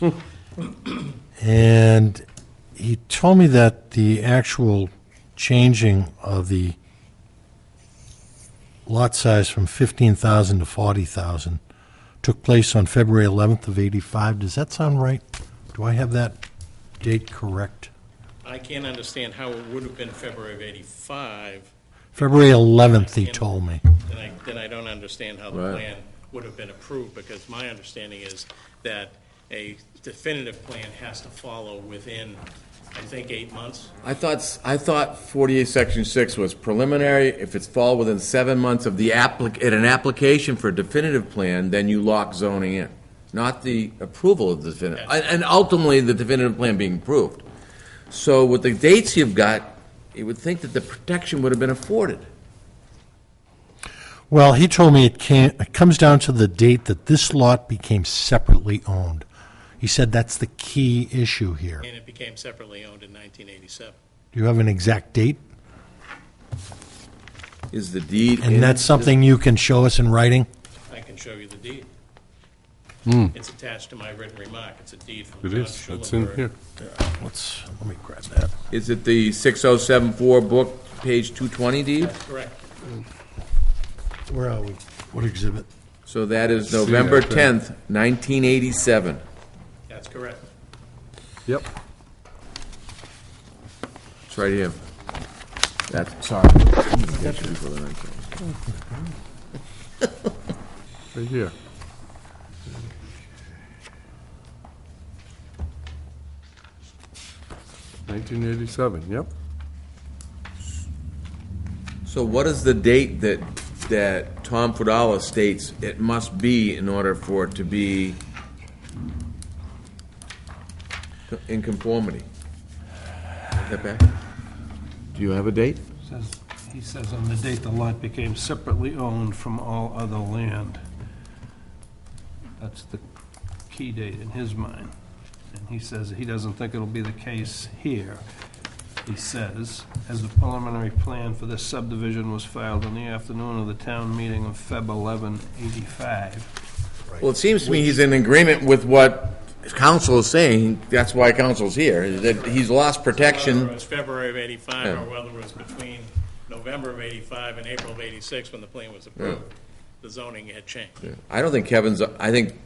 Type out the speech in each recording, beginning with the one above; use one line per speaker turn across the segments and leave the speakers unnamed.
did.
And he told me that the actual changing of the lot size from 15,000 to 40,000 took place on February 11th of 85. Does that sound right? Do I have that date correct?
I can't understand how it would have been February of 85,
February 11th, he told me.
then I, then I don't understand how the
Right.
plan would have been approved, because my understanding is that a definitive plan has to follow within, I think, eight months.
I thought, s- I thought 48, section 6 was preliminary, if it's fall within seven months of the applic, at an application for a definitive plan, then you lock zoning in, not the approval of the definitive, and and ultimately, the definitive plan being approved. So with the dates you've got, you would think that the protection would have been afforded.
Well, he told me it can it comes down to the date that this lot became separately owned. He said that's the key issue here.
And it became separately owned in 1987.
Do you have an exact date?
Is the deed. in-
And that's something you can show us in writing?
I can show you the deed. It's attached to my written remark. It's a deed from
Hmm. It
John
is, it's in
Schulenberg.
here.
Let's, let me grab that.
Is it the 6074 book, page 220 deed?
Correct.
Where are we? What exhibit?
So that is
See that
November
thing.
10th, 1987.
That's correct.
Yep.
It's right here. That's, sorry.
Right here. Nineteen eighty-seven, yep.
So what is the date that, that Tom Fadala states it must be in order for it to be in conformity? Is that back? Do you have a date?
Says, he says on the date the lot became separately owned from all other land. That's the key date in his mind. And he says he doesn't think it'll be the case here. He says, as the preliminary plan for this subdivision was filed on the afternoon of the town meeting of Feb. 11, 85.
Well, it seems to me he's in agreement with what council is saying. That's why council's here, is that he's lost
Whether it
protection.
was February of 85,
Yeah.
or whether it was between November of 85 and April of 86, when the plan was approved, the zoning had changed.
I don't think Kevin's, I think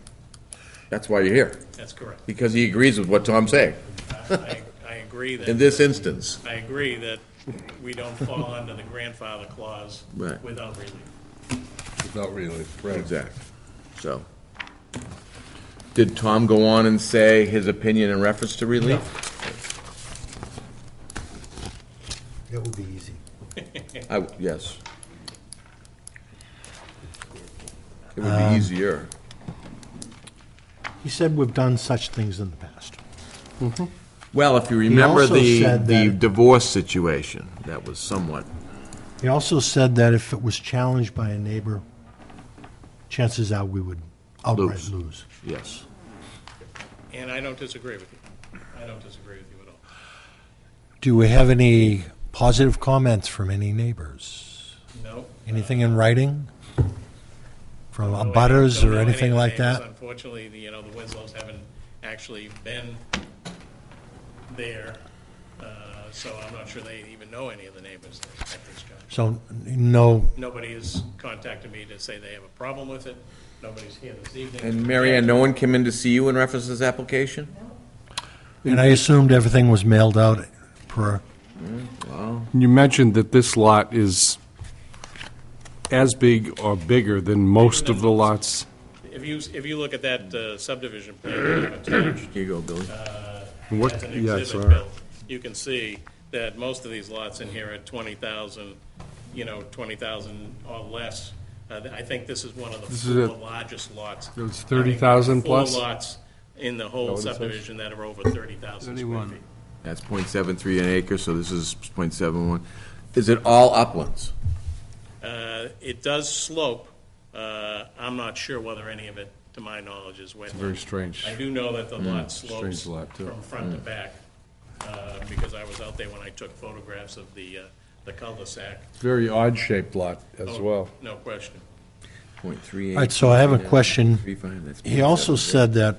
that's why you're here,
That's correct.
because he agrees with what Tom's saying
I I agree
in
that,
this instance.
I agree that we don't fall under the grandfather clause
Right.
without relief.
Without really,
Exactly. So, did Tom go on and say his opinion in reference to relief?
That would be easy.
I, yes. It would
Um,
be easier.
He said we've done such things in the past.
Well, if you remember
also
the,
said
the
that-
divorce situation, that was somewhat,
He also said that if it was challenged by a neighbor, chances are we would outright
Lose.
lose.
yes.
And I don't disagree with you. I don't disagree with you at all.
Do we have any positive comments from any neighbors?
No.
Anything in writing? From
Don't know any-
abutters
don't
or
know any
anything
names.
like that?
Unfortunately, the, you know, the Winslows haven't actually been there, uh, so I'm not sure they even know any of the neighbors at this time.
So, no,
Nobody has contacted me to say they have a problem with it. Nobody's here this evening.
And Mary Ann, no one came in to see you in reference to this application?
and I assumed everything was mailed out per,
You mentioned that this lot is as big or bigger than most of the lots.
If you, if you look at that uh, subdivision plan uh, that I've attached
Here you go, Billy.
What-
as an
yeah, I saw
exhibit,
it.
Bill, you can see that most of these lots in here are 20,000, you know, 20,000 or less. Uh, th- I think this is one of the
This is
four
it.
largest lots.
It was 30,000 plus? Oh,
Four lots in the whole
what it says?
subdivision that are over 30,000 square
31.
feet.
That's .73 an acre, so this is .71. Is it all uplands?
Uh, It does slope. Uh, I'm not sure whether any of it, to my knowledge, is wetland.
Very strange. Mm,
I do know that the lot slopes
strange lot, too. Mm.
from front to back, uh, because I was out there when I took photographs of the, uh, the cul-de-sac.
Very odd-shaped lot as
Oh,
well.
No question.
Point three eight.
All right, so I have a question.
Three five, that's
He also
0.70.
said that